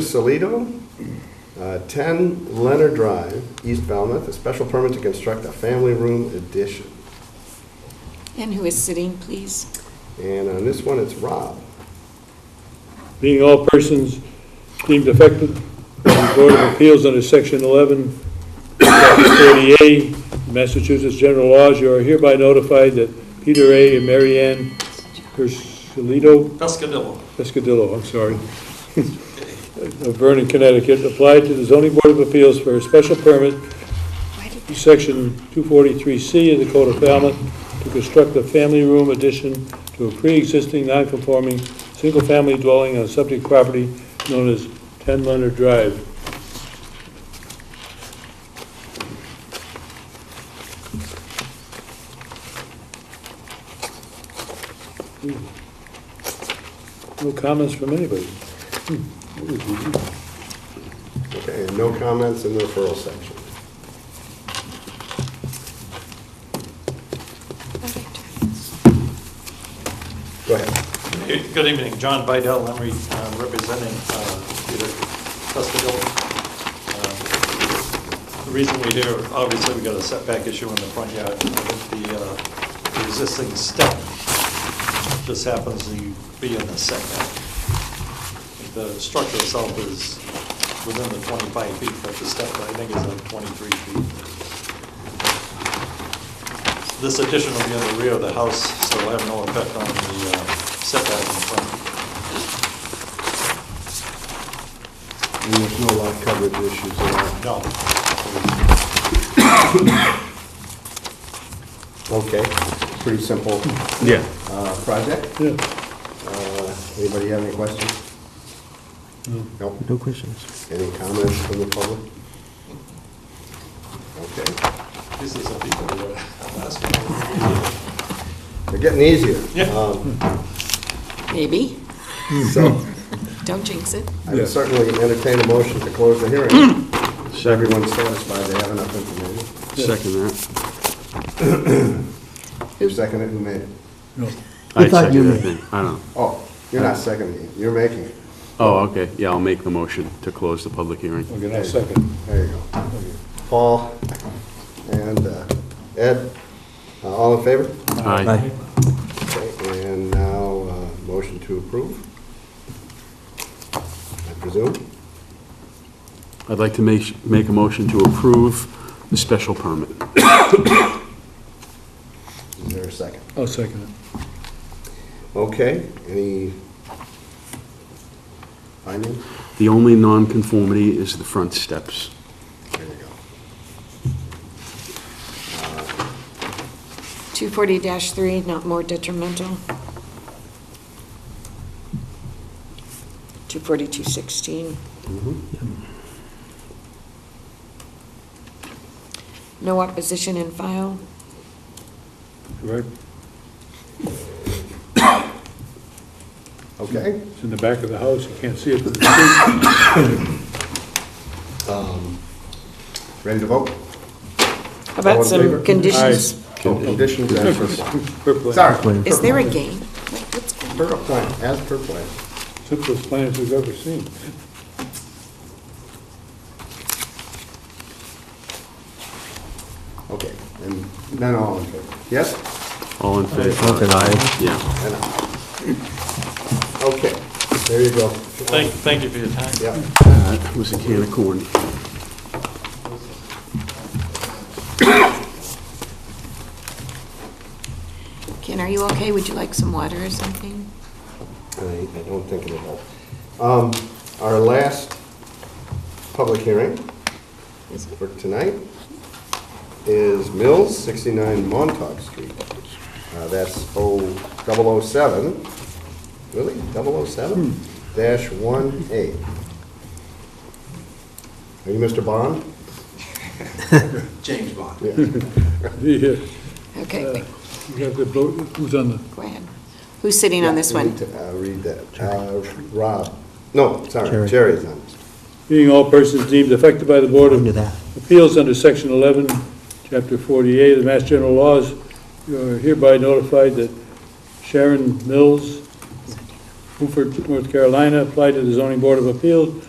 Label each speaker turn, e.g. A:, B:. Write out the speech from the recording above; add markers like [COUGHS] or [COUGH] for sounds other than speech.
A: Pescasolido, uh, 10 Leonard Drive, East Falmouth, a special permit to construct a family room addition.
B: And who is sitting, please?
A: And on this one, it's Rob.
C: Being all persons deemed affected by the Board of Appeals under Section 11, Chapter 30A, Massachusetts General Laws, you are hereby notified that Peter A. and Mary Ann Persilito
D: Pescadillo.
C: Pescadillo, I'm sorry, [LAUGHS] of Vernon, Connecticut, applied to the zoning board of appeals for a special permit,
B: Why did-
C: section 243C of the Code of Falmouth, to construct a family room addition to a pre-existing non-conforming, single-family dwelling on subject property known as 10 Leonard Drive. No comments from anybody?
A: Okay, and no comments in the referral section. Go ahead.
D: Good evening, John Bidell, I'm re- uh, representing uh, Peter Pescadillo. Uh, The reason we're here, obviously, we got a setback issue in the front yard. I think The uh, the existing step just happens to be in the setback. The structure itself is within the 25 feet, but the step, I think, is at 23 feet. This addition will be on the rear of the house, so it'll have no effect on the uh, setback in front.
A: And there's no lot coverage issues at
D: No.
A: all. [COUGHS] Okay, pretty simple
C: Yeah.
A: uh, project.
C: Yeah.
A: Uh, Anybody have any questions? No.
E: No questions.
A: Any comments from the public? Okay,
D: These are some people that are [LAUGHS] asking.
A: they're getting easier.
D: Yeah.
A: Um,
B: Maybe.
A: So
B: Don't jinx it.
A: I would certainly entertain a motion to close the
E: [CLEARS THROAT]
A: hearing. Everyone's satisfied they have enough information.
E: Second that.
A: Who seconded, who made it?
E: I
F: thought you
E: second
F: made-
E: that then. I don't know.
A: Oh, you're not seconding it, you're making it.
E: Oh, okay, yeah, I'll make the motion to close the public hearing.
C: Okay, now second.
A: There you go. Paul and uh, Ed, uh, all in favor?
E: Aye.
A: Okay, And now, uh, motion to approve, I presume?
E: I'd like to make, make a motion to approve the special permit.
A: Is there a second?
C: I'll second it.
A: Okay, any findings?
E: The only nonconformity is the front steps.
A: There you go.
B: 240-3, not more detrimental. 242-16.
A: Mm-hmm.
B: No opposition in file.
C: Correct?
A: Okay.
C: It's in the back of the house, you can't see it. but it's-
A: Ready to vote?
B: How
A: All
B: about
A: in favor?
B: some conditions?
A: Oh, Conditions as per,
C: Purple.
A: sorry.
B: Is there a game? What- What's going
A: Per
B: on?
A: plan, as per plan.
C: Simplest plans we've ever seen. [LAUGHS]
A: Okay, and then all in favor? Yes?
E: All in favor?
F: Okay.
E: Aye. Yeah.
A: And aye. Okay, there you go.
D: Thank, thank you for your time.
A: Yeah,
E: That was a can of corn.
B: Ken, are you okay? Would you like some water or something?
A: I I don't think it'll help. Um, Our last public hearing
B: Is it?
A: for tonight is Mills, 69 Montauk Street. Uh, That's 007, really, 007 dash 1A. Are you Mr. Bond?
D: James Bond.
C: Yeah,
A: Uh,
B: Okay, wait,
C: you got the, blo- who's on the,
B: go ahead. Who's sitting on this
A: Yeah, we
B: one?
A: need to, uh, Read that. Uh, Rob, no, sorry,
F: Jerry.
A: Jerry's on this.
C: being all persons deemed affected by the Board
F: Into
C: of
F: that.
C: Appeals under Section 11, Chapter 48 of the Mass General Laws, you are hereby notified that Sharon Mills Beaufort, North Carolina, applied to the zoning board of appeals